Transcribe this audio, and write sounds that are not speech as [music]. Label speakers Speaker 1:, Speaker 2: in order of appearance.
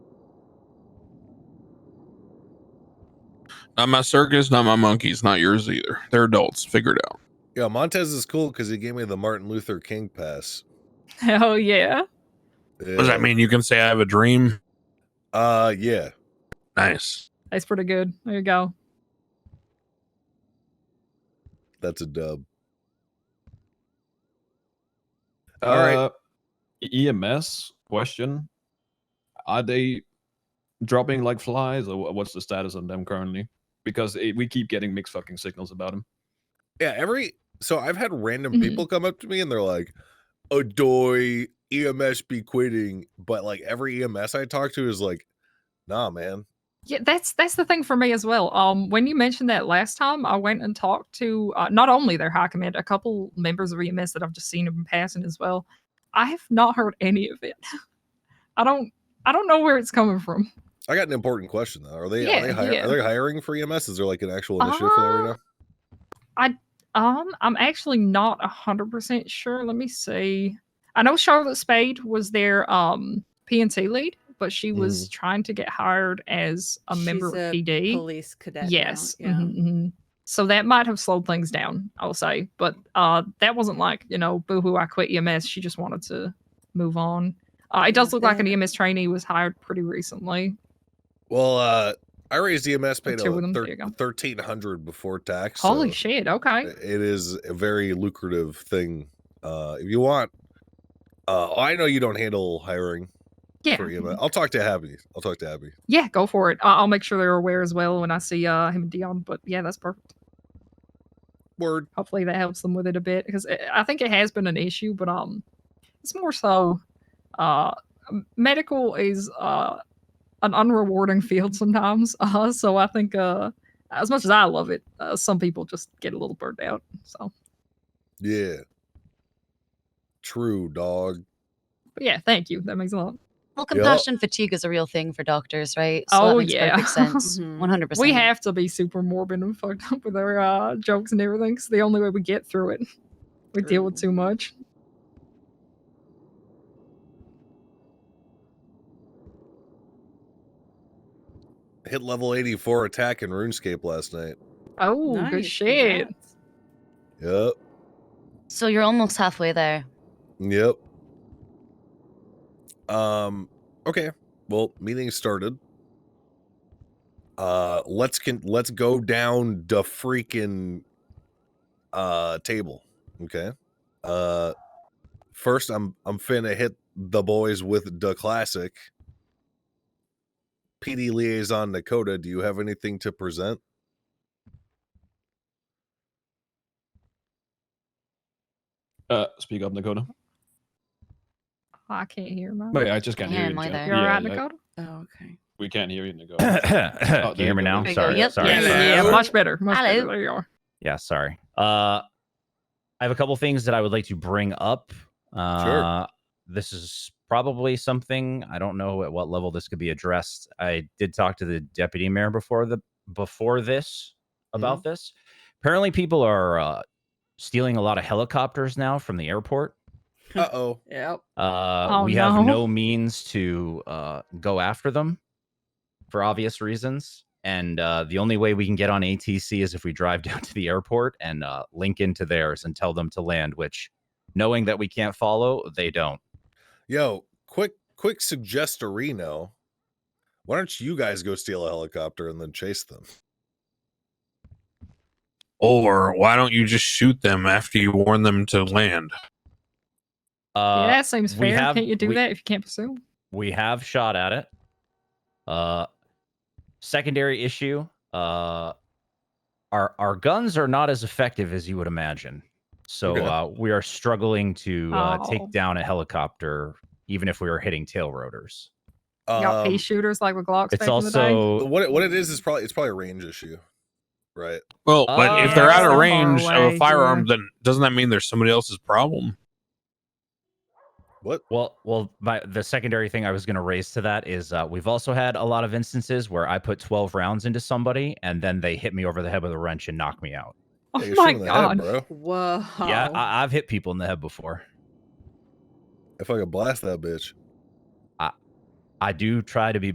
Speaker 1: Not my circus, not my monkeys, not yours either. They're adults. Figure it out.
Speaker 2: Yeah, Montez is cool because he gave me the Martin Luther King pass.
Speaker 3: Hell yeah.
Speaker 1: What does
Speaker 2: Yeah.
Speaker 1: that mean? You can say I have a dream.
Speaker 2: Uh, yeah.
Speaker 1: Nice.
Speaker 3: That's pretty good. There you go.
Speaker 2: That's a dub.
Speaker 4: All
Speaker 2: All right.
Speaker 4: right. EMS E question: Are they dropping like flies, or wha- what's the status on them currently? Because it, we keep getting mixed fucking signals about them.
Speaker 2: Yeah, every so I've had random
Speaker 3: Mhm.
Speaker 2: people come up to me and they're like, "Adoy EMS be quitting," but like every EMS I talk to is like, "Nah, man."
Speaker 3: Yeah, that's that's the thing for me as well. Um, when you mentioned that last time, I went and talked to uh, not only their high command, a couple members of EMS that I've just seen in passing as well. I have not heard any of it. I don't. I don't know where it's coming from.
Speaker 2: I got an important question though. Are they are they
Speaker 3: Yeah,
Speaker 2: hire,
Speaker 3: yeah. Ah.
Speaker 2: are they hiring for EMS? Is there like an actual initiative for that right now?
Speaker 3: Um, I'm actually not hundred percent sure. Let me see. I know Charlotte Spade was their um PNC lead, but she was trying to get hired as a member
Speaker 5: Mm. She's
Speaker 3: of
Speaker 5: a
Speaker 3: PD.
Speaker 5: Police cadet. now,
Speaker 3: Yes.
Speaker 5: Yeah.
Speaker 3: mhm, mhm. So that might have slowed things down, I'll say. But uh, that wasn't like, you know, boo hoo, I quit EMS. She just wanted to move on. Uh, it does
Speaker 5: Yeah,
Speaker 3: look like an
Speaker 5: they-
Speaker 3: EMS trainee was hired pretty recently.
Speaker 2: Well, uh, I raised EMS paid
Speaker 3: Let's hear what
Speaker 2: a
Speaker 3: I'm-
Speaker 2: thir-
Speaker 3: there you go.
Speaker 2: thirteen hundred before tax.
Speaker 3: Holy
Speaker 2: so
Speaker 3: shit. Okay.
Speaker 2: i- It is a very lucrative thing. Uh, if you want, uh, I know you don't handle hiring
Speaker 3: Yeah.
Speaker 2: for E EMS. I'll talk to Abby. I'll talk to Abby.
Speaker 3: Yeah, go for it. I- I'll make sure they're aware as well when I see uh, him and Dion. But yeah, that's perfect.
Speaker 2: Word.
Speaker 3: Hopefully that helps them with it a bit because I think it has been an issue, but um, it's more so uh, m- medical is uh, an unrewarding field sometimes. [laughs] Uh, so I think, uh, as much as I love it, uh, some people just get a little burnt out. So,
Speaker 2: Yeah. True, dog.
Speaker 3: but yeah, thank you. That makes a lot.
Speaker 6: Well,
Speaker 2: Yep.
Speaker 6: compassion fatigue is a real thing for doctors, right? So
Speaker 3: Oh,
Speaker 6: that makes
Speaker 3: yeah. [laughs]
Speaker 6: perfect sense.
Speaker 5: Mhm.
Speaker 6: One hundred percent.
Speaker 3: We have to be super morbid and [laughs] fucked up with our uh, jokes and everything. It's the only way we get through it. We deal with
Speaker 5: True.
Speaker 3: too much.
Speaker 2: Hit level 84 attack in RuneScape last night.
Speaker 3: Oh, good
Speaker 5: Nice,
Speaker 3: shit.
Speaker 5: congrats.
Speaker 2: Yep.
Speaker 6: So you're almost halfway there.
Speaker 2: Yep. Um okay. Well, meeting started. Uh let's can let's go down the freaking uh table. Okay. Uh first I'm I'm finna hit the boys with the classic. PD liaison Dakota, do you have anything to present?
Speaker 4: Uh, speak up, Dakota.
Speaker 3: I can't hear my.
Speaker 4: Wait, I just can't
Speaker 6: Yeah,
Speaker 4: hear you.
Speaker 6: am I
Speaker 4: Jack.
Speaker 6: there?
Speaker 3: You're
Speaker 4: Oh, Yeah,
Speaker 3: right,
Speaker 4: like,
Speaker 3: Dakota?
Speaker 5: Oh, okay.
Speaker 4: we can't hear you,
Speaker 6: [coughs]
Speaker 4: Dakota.
Speaker 7: [coughs] Can you hear me now?
Speaker 6: Oh, There you go.
Speaker 7: Sorry.
Speaker 6: Yep.
Speaker 7: Sorry.
Speaker 3: yeah,
Speaker 7: sorry.
Speaker 3: yeah, much better. Much better.
Speaker 6: Hello.
Speaker 3: There you are.
Speaker 7: Yeah, sorry. Uh, I have a couple things that I would like to bring up. Uh, This is probably something I don't know at what level this could be addressed. I did talk to the deputy mayor before the before this about this. Apparently, people are uh, stealing a lot of helicopters now from the airport.
Speaker 2: Uh-oh.
Speaker 5: Yep.
Speaker 7: Uh,
Speaker 3: Oh,
Speaker 7: we have
Speaker 3: no.
Speaker 7: no means to uh, go after them for obvious reasons. And uh, the only way we can get on ATC is if we drive [laughs] down to the airport and uh, link into theirs and tell them to land, which knowing that we can't follow, they don't.
Speaker 2: Yo, quick, quick suggestorino. Why don't you guys go steal a helicopter and then chase them?
Speaker 1: Or why don't you just shoot them after you warn them to land?
Speaker 7: Uh,
Speaker 3: yeah, that seems
Speaker 7: we
Speaker 3: fair.
Speaker 7: have-
Speaker 3: can't you do
Speaker 7: we-
Speaker 3: that if you can't pursue?
Speaker 7: we have shot at it. Uh, secondary issue uh, our, our guns are not as effective as you would imagine. So
Speaker 2: Okay.
Speaker 7: uh, we are struggling to uh,
Speaker 3: Oh.
Speaker 7: take down a helicopter, even if we were hitting tail rotors.
Speaker 3: Y'all pay
Speaker 2: Um,
Speaker 3: shooters like with Glocks back
Speaker 7: It's
Speaker 3: in the day.
Speaker 7: also
Speaker 2: what it, what it is is probably it's probably a range issue, right?
Speaker 1: Well, but if they're
Speaker 3: Oh,
Speaker 1: out of
Speaker 3: so far
Speaker 1: range of
Speaker 3: away,
Speaker 1: a firearm,
Speaker 3: yeah.
Speaker 1: then doesn't that mean there's somebody else's problem?
Speaker 2: What?
Speaker 7: well, well. My, the secondary thing I was going to raise to that is uh, we've also had a lot of instances where I put twelve rounds into somebody and then they hit me over the head with a wrench and knock me out.
Speaker 2: Yeah,
Speaker 3: Oh
Speaker 2: you're
Speaker 3: my
Speaker 2: shooting in the head,
Speaker 3: god.
Speaker 2: bro!
Speaker 5: Whoa.
Speaker 7: Yeah,
Speaker 3: Oh.
Speaker 7: I, I've hit people in the head before.
Speaker 2: If I could blast that bitch,
Speaker 7: I do try to be